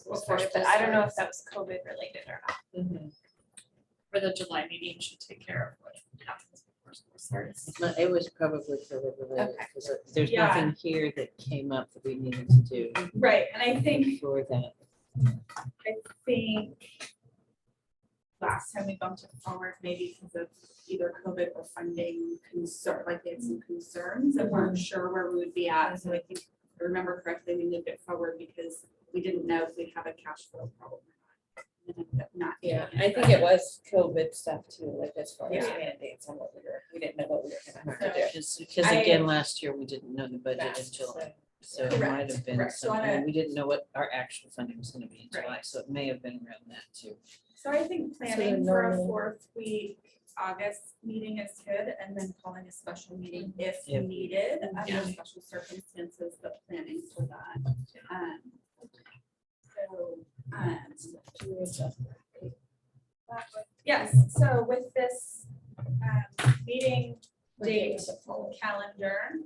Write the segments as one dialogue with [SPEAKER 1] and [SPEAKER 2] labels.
[SPEAKER 1] before, but I don't know if that was COVID related or not.
[SPEAKER 2] Mm-hmm.
[SPEAKER 3] for the July meeting should take care of what happens before school starts.
[SPEAKER 4] No, It was probably COVID related,
[SPEAKER 1] Okay.
[SPEAKER 4] because there's
[SPEAKER 3] Yeah.
[SPEAKER 4] nothing here that came up that we needed to do
[SPEAKER 3] Right, and I think,
[SPEAKER 4] before that.
[SPEAKER 3] I think last time we bumped it forward, maybe because of either COVID or funding concern, like they had some concerns and weren't sure where we would be at. So I think, if I remember correctly, we moved it forward because we didn't know if we'd have a cash flow problem. or not. And ended up Not. doing
[SPEAKER 2] Yeah, I think it was COVID stuff too, like as far as
[SPEAKER 3] Yeah.
[SPEAKER 2] mandates and what we were, we didn't know what we were gonna have to do.
[SPEAKER 4] Because, because
[SPEAKER 3] I-
[SPEAKER 4] again, last year, we didn't know the budget until,
[SPEAKER 2] So,
[SPEAKER 4] so it might
[SPEAKER 3] Correct,
[SPEAKER 4] have been
[SPEAKER 3] correct. So on
[SPEAKER 4] something,
[SPEAKER 3] a-
[SPEAKER 4] we didn't know what our actual funding was gonna be in
[SPEAKER 3] Right.
[SPEAKER 4] July, so it may have been around that too.
[SPEAKER 3] So I think
[SPEAKER 2] the
[SPEAKER 3] planning for a
[SPEAKER 2] normal-
[SPEAKER 3] fourth week August meeting is good, and then calling a special meeting if
[SPEAKER 4] Yeah.
[SPEAKER 3] needed, under
[SPEAKER 4] Yeah.
[SPEAKER 3] special circumstances, but planning for that. Um, So, um,
[SPEAKER 2] we adjust.
[SPEAKER 3] yes, so with this um, meeting date calendar,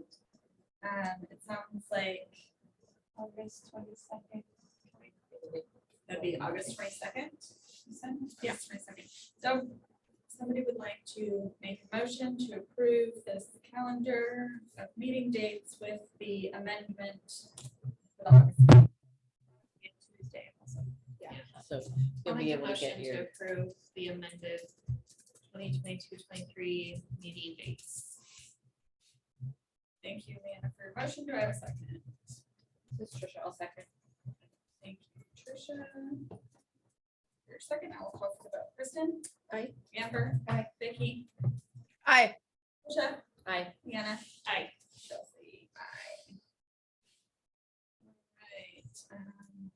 [SPEAKER 3] um, it sounds like August twenty-second. That'd be August twenty-second, you said? Yes, twenty-second. So somebody would like to make a motion to approve this calendar of meeting dates with the amendment. that August- Yeah, Tuesday also.
[SPEAKER 4] So you'll be able to get your,
[SPEAKER 5] approve the amended 2022-23 meeting dates.
[SPEAKER 3] Thank you, Amanda, for your motion. Do I have a second? This is Tricia, I'll second. Thank you, Tricia. Your second, I will call for the vote. Kristen?
[SPEAKER 2] Aye.
[SPEAKER 3] Amber? Aye. Vicky?
[SPEAKER 5] Aye.
[SPEAKER 3] Tricia?
[SPEAKER 5] Aye.
[SPEAKER 3] Deanna?
[SPEAKER 5] Aye.
[SPEAKER 3] Chelsea? Aye. All right. um,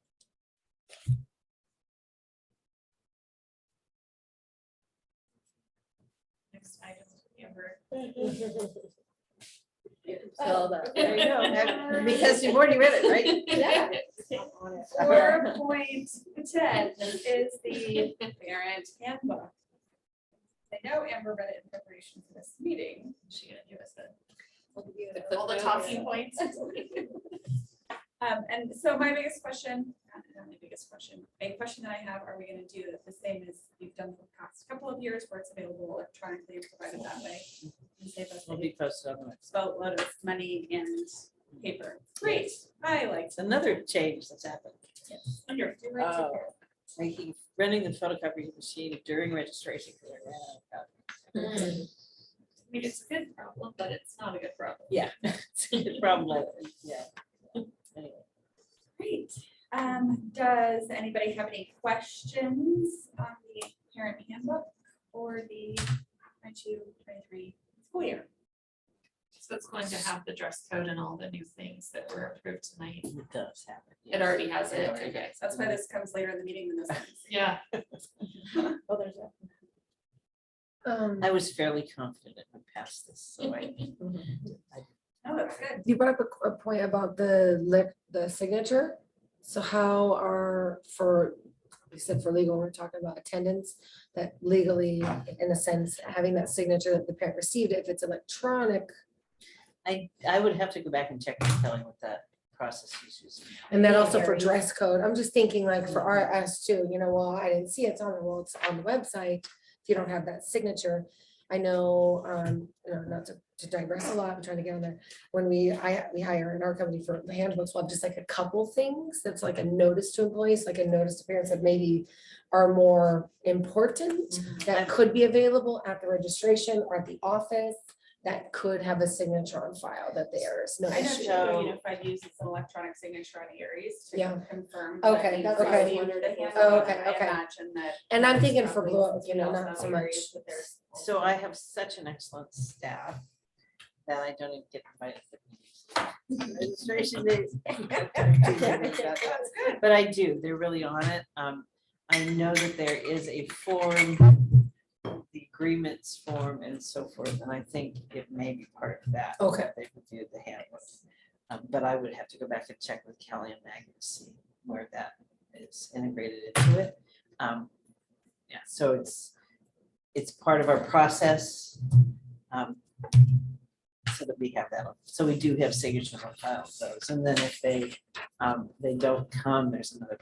[SPEAKER 3] Next item, Amber.
[SPEAKER 2] Tell that.
[SPEAKER 5] There you
[SPEAKER 3] go.
[SPEAKER 2] Because you've already read it, right?
[SPEAKER 3] Four point ten is the parent handbook. I know Amber read it in preparation for this meeting.
[SPEAKER 5] She gonna give us
[SPEAKER 2] the
[SPEAKER 5] the, all the talking points.
[SPEAKER 3] Um, and so my biggest question, not not my biggest question, a question that I have, are we gonna do it the same as you've done for the past couple of years where it's available electronically and provided that way? And save us
[SPEAKER 4] will be posted on the
[SPEAKER 3] a boatload of money and paper. Great, I like
[SPEAKER 4] It's another change that's happened.
[SPEAKER 3] Wonderful. You're right to
[SPEAKER 4] Oh.
[SPEAKER 3] care.
[SPEAKER 4] Making, running the photocopy machine during registration. 'cause I ran out of copies.
[SPEAKER 5] I mean, it's a good problem, but it's not a good problem.
[SPEAKER 4] Yeah, it's a
[SPEAKER 5] Mm.
[SPEAKER 4] good problem, like, yeah. Anyway.
[SPEAKER 3] Great. Um, does anybody have any questions on the parent handbook or the 22, 23 school year?
[SPEAKER 5] So it's going to have the dress code and all the new things that were approved tonight.
[SPEAKER 4] It does happen.
[SPEAKER 5] It already has it, okay.
[SPEAKER 3] That's why this comes later in the meeting than this. one.
[SPEAKER 5] Yeah.
[SPEAKER 2] Oh, there's that.
[SPEAKER 6] Um,
[SPEAKER 4] I was fairly confident it would pass this, so I.
[SPEAKER 3] Oh, that's good.
[SPEAKER 6] you brought up a qu- a point about the lip, the signature. So how are for, we said for legal, we're talking about attendance, that legally, in a sense, having that signature that the parent received, if it's electronic.
[SPEAKER 4] I, I would have to go back and check and tell you what that process uses.
[SPEAKER 6] And then also for dress code, I'm just thinking like
[SPEAKER 3] Mm-hmm.
[SPEAKER 6] for RS too, you know, well, I didn't see it, it's on the, well, it's on the website. If you don't have that signature, I know, um, you know, not to to digress a lot, I'm trying to get on there. When we, I, we hire in our company for the handbooks, we'll have just like a couple things, that's like a notice to employees, like a notice to parents that maybe are more important,
[SPEAKER 5] Mm-hmm.
[SPEAKER 6] that could be available at the registration or at the office, that could have a signature on file that there is no
[SPEAKER 3] I know
[SPEAKER 6] issue.
[SPEAKER 3] Chicago
[SPEAKER 4] So-
[SPEAKER 3] Unified uses an electronic signature on Aries to
[SPEAKER 6] Yeah.
[SPEAKER 3] confirm.
[SPEAKER 6] Okay,
[SPEAKER 3] that
[SPEAKER 6] that's okay.
[SPEAKER 3] they received the handbook,
[SPEAKER 6] Oh, okay,
[SPEAKER 3] and I
[SPEAKER 6] okay.
[SPEAKER 3] Imagine that.
[SPEAKER 6] And I'm thinking for
[SPEAKER 3] probably
[SPEAKER 6] blow up, you know,
[SPEAKER 3] also
[SPEAKER 6] not so much.
[SPEAKER 3] Aries, that there's-
[SPEAKER 4] So I have such an excellent staff that I don't even get invited. to meetings. Registration days.
[SPEAKER 3] That's good.
[SPEAKER 4] But I do, they're really on it. Um, I know that there is a form, the agreements form and so forth, and I think it may be part of that.
[SPEAKER 6] Okay.
[SPEAKER 4] that They reviewed the handbook. Um, but I would have to go back and check with Kelly and Maggie to see where that is integrated into it. Um, yeah, so it's, it's part of our process. um, So that we have that, on- so we do have signatures on files, those, and then if they um, they don't come, there's another